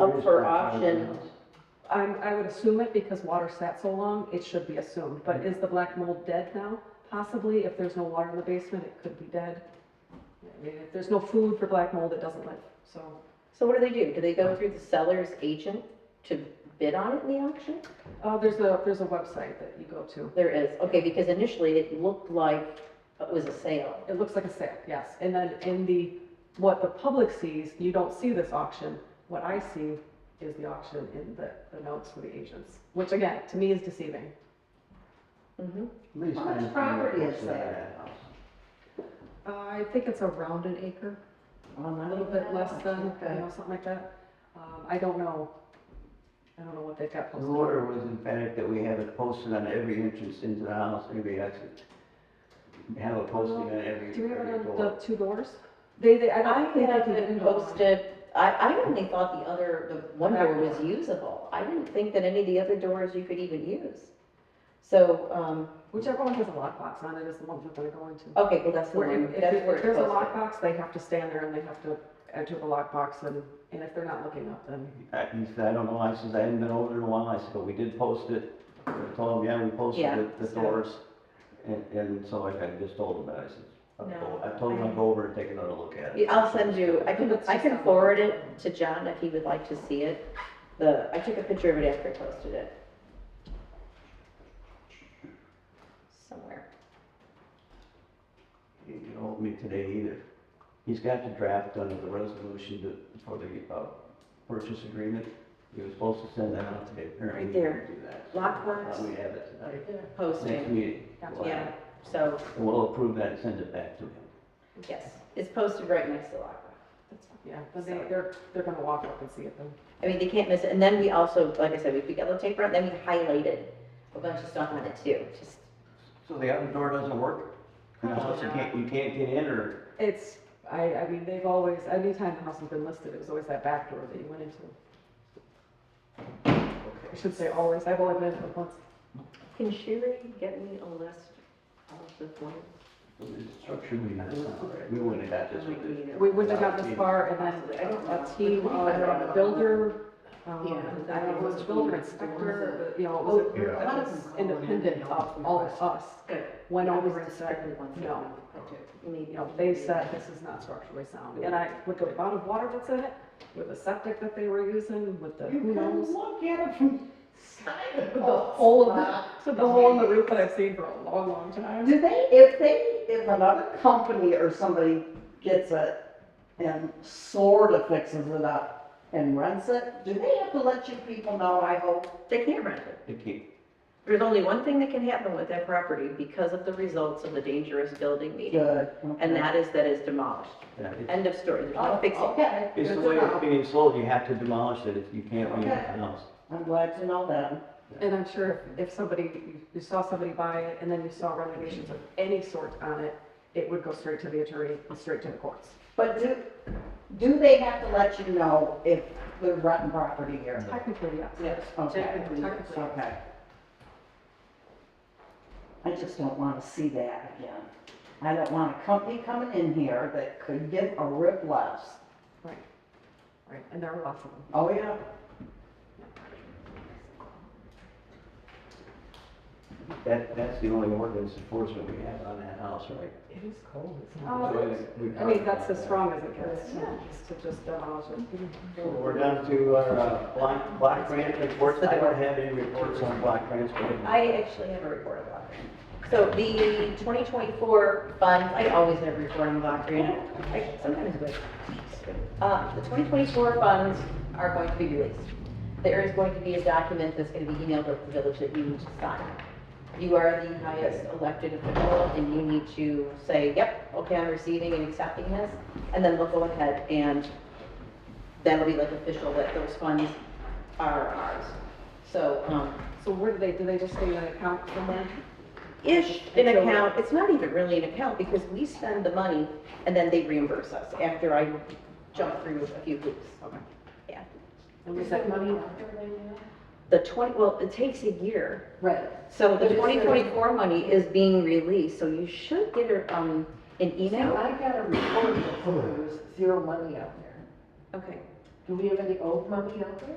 up for option, I'm, I would assume it because water sat so long, it should be assumed, but is the black mold dead now? Possibly, if there's no water in the basement, it could be dead. I mean, if there's no food for black mold, it doesn't live, so. so what do they do? Do they go through the seller's agent to bid on it in the auction? Uh, there's a, there's a website that you go to. There is, okay, because initially it looked like it was a sale. It looks like a sale, yes. And then in the, what the public sees, you don't see this auction. What I see is the auction in the, the notes for the agents, which again, to me is deceiving. Mm-hmm. How much property is there? Uh, I think it's around an acre, a little bit less than, you know, something like that. Um, I don't know. I don't know what they've got The posted. order was emphatic that we have it posted on every entrance into the house, every exit. Have a posting on every, Do we have every it on the door. two doors? They, they, I I don't think they have can it do it on- posted, I, I only thought the other, the one door was usable. I didn't think that any of the other doors you could even use. So, um, Whichever one has a lockbox on it is the one we're gonna go into. okay, well, that's the Where one, if, if that's it- where if it's there's a posted. lockbox, they have to stand there and they have to enter the lockbox and, and if they're not looking up, then. I- Uh, He said, I don't know, I says, I hadn't been over there in a while, I said, but we did post it. I told him, yeah, we posted Yeah, the, the so- doors. And, and so I I just told him that, I said, I'll go, No, I told him I- I'd go over and take another look at it. Yeah, I'll send you, I can, Let's I just can have- forward it to John if he would like to see it. The, I took a picture of it after I posted it. Somewhere. He didn't hold me today either. He's got the draft under the resolution to- for the, uh, purchase agreement. He was supposed to send that out today, apparently. Right he didn't there. do that. Lockbox. Uh, We have it tonight. Next Posting, meeting. we'll have it. yeah, so, And uh, we'll approve that and send it back to him. yes, it's posted right next to the lockbox. Yeah, but they, they're, they're gonna walk up and see it then. I mean, they can't miss it. And then we also, like I said, we put yellow tape around, then we highlighted a bunch of stuff on it too, just, So the other door doesn't work? And No. also you can't, you can't get in or? It's, I, I mean, they've always, anytime the house has been listed, it was always that back door that you went into. I should say always, I've only been in it once. can Sherry get me a list of the ones? Structurally, that's not right. We wouldn't have got this with this. We wouldn't have got this far and I then don't know. a team of builder, um, Yeah. I don't know, it was builder inspector, you know, it Oh, was Yeah. a- it was independent of all of us. Good. Went I over was and said, distracted once. no, Maybe. you know, they said this is not structurally sound. And I, with the amount of water that's in it, with the septic that they were using, with the, who knows? look at it from side of The hole in the, so the hole in the roof that I've seen for a long, long time. Do they, if they, if another company or somebody gets it and sort of fixes it up and rents it, do they have to let you people know, I hope? They can't rent it. They keep- There's only one thing that can happen with that property because of the results of the dangerous building meeting. Good. And that is that it's demolished. yeah, it- End of story. There's Oh, no fixing. it. Okay. It's good the to way it's know. being sold, you have to demolish it if you can't leave the Okay. house. I'm glad to know that. And I'm sure if somebody, you- you saw somebody buy it and then you saw renovations of any sort on it, it would go straight to the attorney, and straight to the courts. But do, do they have to let you know if they're renting property here? Technically, yes. Yes. Okay. Technically, technically. Okay. I just don't want to see that again. I don't want a company coming in here that could give a rip less. Right, right, and there are lots of them. Oh, yeah. That, that's the only ordinance enforcement we have on that house, right? It is cold, isn't it? So we- we Uh, I mean, that's as talked about that. strong as it gets, just to just demolish it. So We're down to our uh, Black, Black Grant reports. I don't have any reports on Black Grants. but- I actually have a report of block grant. So the 2024 funds, I always have a report on block grant. I sometimes wait. Uh, The 2024 funds are going to be released. There is going to be a document that's going to be emailed out to the village that you need to sign. You are the highest elected official and you need to say, yep, okay, I'm receiving and accepting this. And then they'll go ahead and that'll be like official that those funds are ours. So, um, So where do they, do they just stay in an account somewhere? ish an Until- account, it's not even really an account because we spend the money and then they reimburse us after I jump through a few hoops. And we set money? The twenty, well, it takes a year, Right. so the But it's- twenty twenty-four money is being released, so you should get a, um, an Now, email. I got a report that there was zero money out there. Okay. Do we have any old money out there?